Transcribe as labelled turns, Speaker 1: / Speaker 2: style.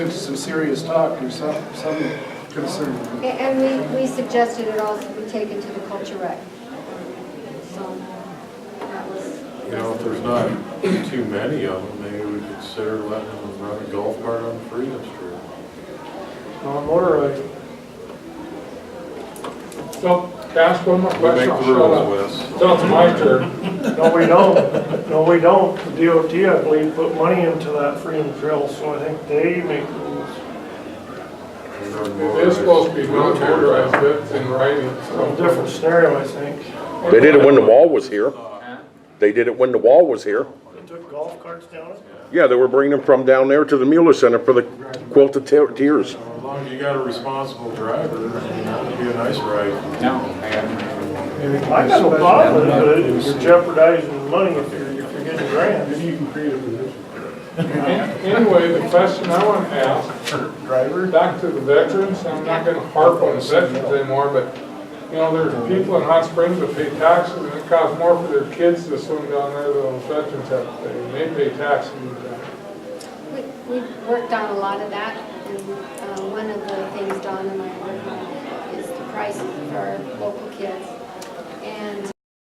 Speaker 1: into some serious talk or some, some concern.
Speaker 2: And we, we suggested it also be taken to the culture rec. So that was.
Speaker 3: You know, if there's not too many of them, maybe we consider letting them run a golf cart on Freedom Street.
Speaker 4: Uh,
Speaker 5: on motor racing.
Speaker 4: Well, ask one more
Speaker 3: We
Speaker 4: question,
Speaker 3: make
Speaker 4: I'll
Speaker 3: the
Speaker 4: shut up.
Speaker 3: rules, Wes.
Speaker 4: So it's my turn.
Speaker 5: No, we don't. No, we don't. The DOT, I believe, put money into that freedom trail, so I think they make the rules.
Speaker 4: It is supposed to be non-motorized, but it's in writing,
Speaker 5: A
Speaker 4: so.
Speaker 5: different scenario, I think.
Speaker 6: They did it when the wall was here. They did it when the wall was here.
Speaker 5: They took golf carts down it.
Speaker 6: Yeah, they were bringing them from down there to the Mueller Center for the Quilted Te- Tears.
Speaker 3: As long as you got a responsible driver, it'd be a nice ride.
Speaker 7: No, I haven't.
Speaker 5: I got no problem with it, but you're jeopardizing money if you're, if you're getting grants.
Speaker 1: Maybe you can create a position.
Speaker 4: Anyway, the question I want to ask,
Speaker 1: Driver?
Speaker 4: back to the veterans, I'm not gonna harp on the veterans anymore, but, you know, there's people in Hot Springs that pay taxes, and it costs more for their kids to swim down there than the veterans have to pay, and they pay taxes.
Speaker 2: We, we worked on a lot of that, and uh, one of